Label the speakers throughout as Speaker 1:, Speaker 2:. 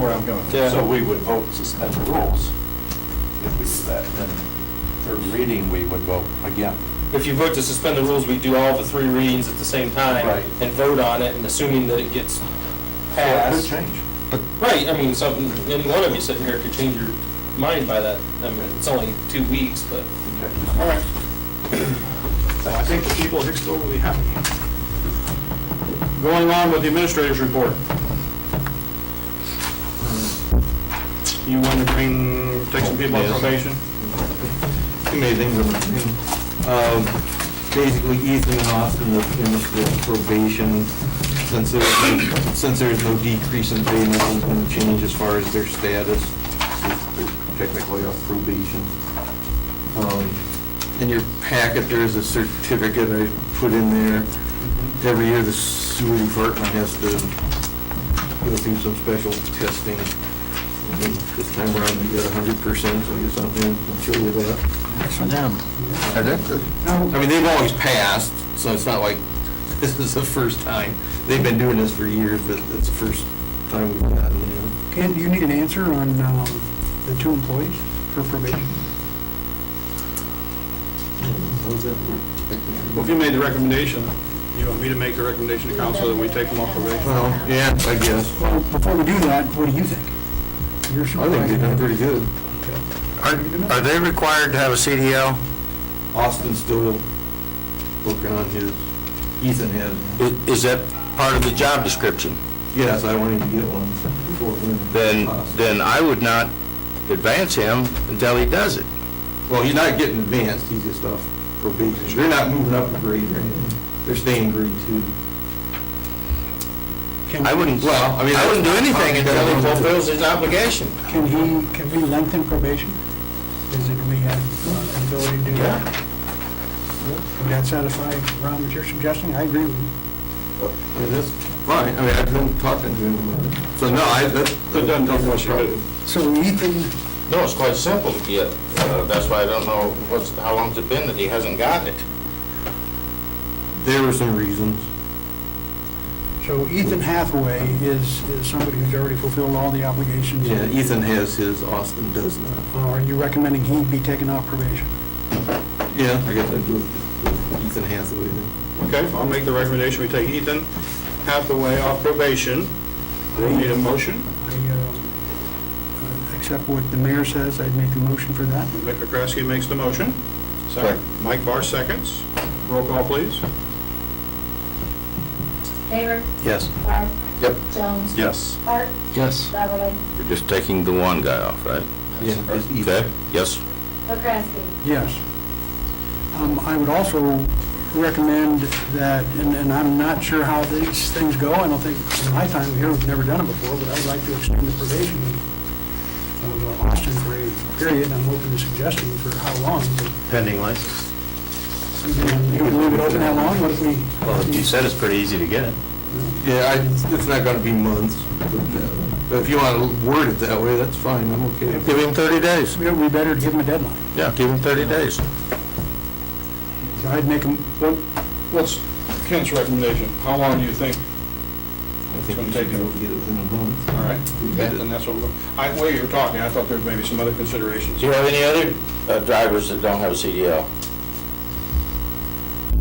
Speaker 1: where I'm going.
Speaker 2: Yeah.
Speaker 3: So we would vote suspend the rules if we do that. Then third reading, we would vote again.
Speaker 2: If you vote to suspend the rules, we do all the three readings at the same time.
Speaker 3: Right.
Speaker 2: And vote on it, and assuming that it gets
Speaker 3: That would
Speaker 2: passed.
Speaker 3: change.
Speaker 2: Right, I mean, something, any one of you sitting here could change your mind by that. I mean, it's only two weeks, but.
Speaker 3: Okay.
Speaker 1: All right. I think the people of Hicksville will be happy.
Speaker 2: Going on with the administrator's report.
Speaker 1: You want to bring, take some people on probation?
Speaker 4: Too many things on the screen. Um, Basically, Ethan and Austin have finished their probation since there's, since there's no decrease in pay, nothing's gonna change as far as their status. They're Technically off probation. Um, In your packet, there is a certificate I put in there. Every year, the sewer department has to go through some special testing. And This time around, we got hundred percent, so I guess I'm gonna show you that. I mean, they've always passed, so it's not like this is the first time. They've been doing this for years, but it's the first time we've gotten them.
Speaker 5: Ken, do you need an answer on um, the two employees for probation?
Speaker 4: How's that work?
Speaker 1: Well, if you made the recommendation, you want me to make the recommendation to council that we take them off probation?
Speaker 4: Well, yeah, I guess.
Speaker 5: Well, Before we do that, what do you think? You're
Speaker 4: I think they've done
Speaker 5: supervising.
Speaker 4: pretty good.
Speaker 6: Are they required to have a CDL?
Speaker 4: Austin's still working on his, Ethan has.
Speaker 6: I- Is that part of the job description?
Speaker 4: Yes, I wanted to get one before winter.
Speaker 6: Then, then I would not advance him until he does it.
Speaker 4: Well, he's not getting advanced, he's just off probation. They're not moving up a grade or anything. They're staying grade two.
Speaker 5: Can
Speaker 6: I wouldn't,
Speaker 4: Well, I mean,
Speaker 6: I wouldn't do anything until he fulfills his obligation.
Speaker 5: Can he, can we lengthen probation? Is it, do we have uh, an ability to do that? Would that satisfy, Ron, what you're suggesting? I agree with you.
Speaker 4: It is fine, I mean, I've been talking to him about it. So no, I, that.
Speaker 1: It doesn't tell what you do.
Speaker 5: So Ethan,
Speaker 6: No, it's quite simple to get, uh, that's why I don't know what's, how long's it been that he hasn't gotten it.
Speaker 4: There were some reasons.
Speaker 5: so Ethan Hathaway is, is somebody who's already fulfilled all the obligations. Uh,
Speaker 4: Yeah, Ethan has his, Austin does not.
Speaker 5: Are you recommending he be taken off probation?
Speaker 4: Yeah, I guess I do with Ethan Hathaway then.
Speaker 1: Okay, I'll make the recommendation, we take Ethan Hathaway off probation. Do we need a motion?
Speaker 5: I um, uh, accept what the mayor says, I'd make a motion for that.
Speaker 1: Mick McCrasky makes the motion. Second. Mike Barr seconds. Roll call, please.
Speaker 7: Haver.
Speaker 6: Yes.
Speaker 7: Barr.
Speaker 6: Yep.
Speaker 7: Jones.
Speaker 1: Yes.
Speaker 7: Hart.
Speaker 6: Yes.
Speaker 7: Beverly.
Speaker 6: We're just taking the one guy off, right?
Speaker 4: Yeah, it's
Speaker 6: Okay,
Speaker 4: Ethan.
Speaker 6: yes.
Speaker 7: McCrasky.
Speaker 5: Yes. Um, I would also recommend that, and and I'm not sure how these things go, I don't think, in my time here, we've never done it before, but I would like to extend the probation of uh, Austin for a period, I'm open to suggesting for how long, but uh,
Speaker 8: Pending license.
Speaker 5: you would leave it open how long, what if we?
Speaker 8: Well, you said it's pretty easy to get.
Speaker 4: Yeah, I, it's not gonna be months, but, uh, but if you wanna word it that way, that's fine, I'm okay.
Speaker 6: Give him 30 days.
Speaker 5: It would be better to give them a deadline.
Speaker 6: Yeah, give him 30 days.
Speaker 5: So I'd make them,
Speaker 1: What- What's Kent's recommendation? How long do you think?
Speaker 4: I think we should be able to get it within a month.
Speaker 1: All right, then that's what we're, I, while you were talking, I thought there may be some other considerations.
Speaker 6: Do you have any other uh, drivers that don't have a CDL?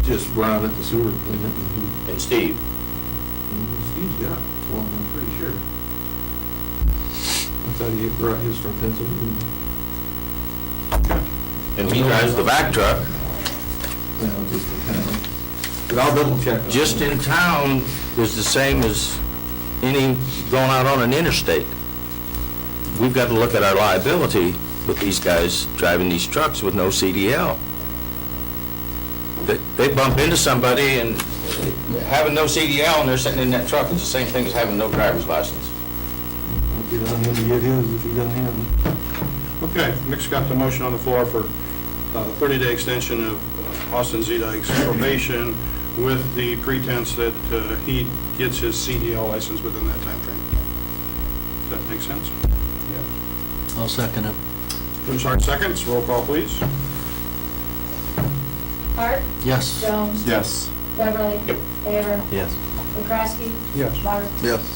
Speaker 4: Just run at the sewer plant and
Speaker 6: And Steve?
Speaker 4: he, he's got one, I'm pretty sure. I thought he brought his from Pennsylvania.
Speaker 6: And he drives the back truck.
Speaker 4: Well, just in town. But I'll double check. on
Speaker 6: Just
Speaker 4: that.
Speaker 6: in town is the same as any going out on an interstate. We've got to look at our liability with these guys driving these trucks with no CDL. They they bump into somebody and having no CDL and they're sitting in that truck is the same thing as having no driver's license.
Speaker 4: I'll Get on him to get his if he doesn't have it.
Speaker 1: Okay, Mick's got the motion on the floor for uh, 30-day extension of uh, Austin Zedek's probation with the pretense that uh, he gets his CDL license within that timeframe. Does that make sense?
Speaker 8: I'll second it.
Speaker 1: Jim Sark seconds, roll call, please.
Speaker 7: Hart.
Speaker 8: Yes.
Speaker 7: Jones.
Speaker 1: Yes.
Speaker 7: Beverly. Haver.
Speaker 8: Yes.
Speaker 7: McCrasky.
Speaker 5: yes.
Speaker 7: Barr.
Speaker 4: Yes.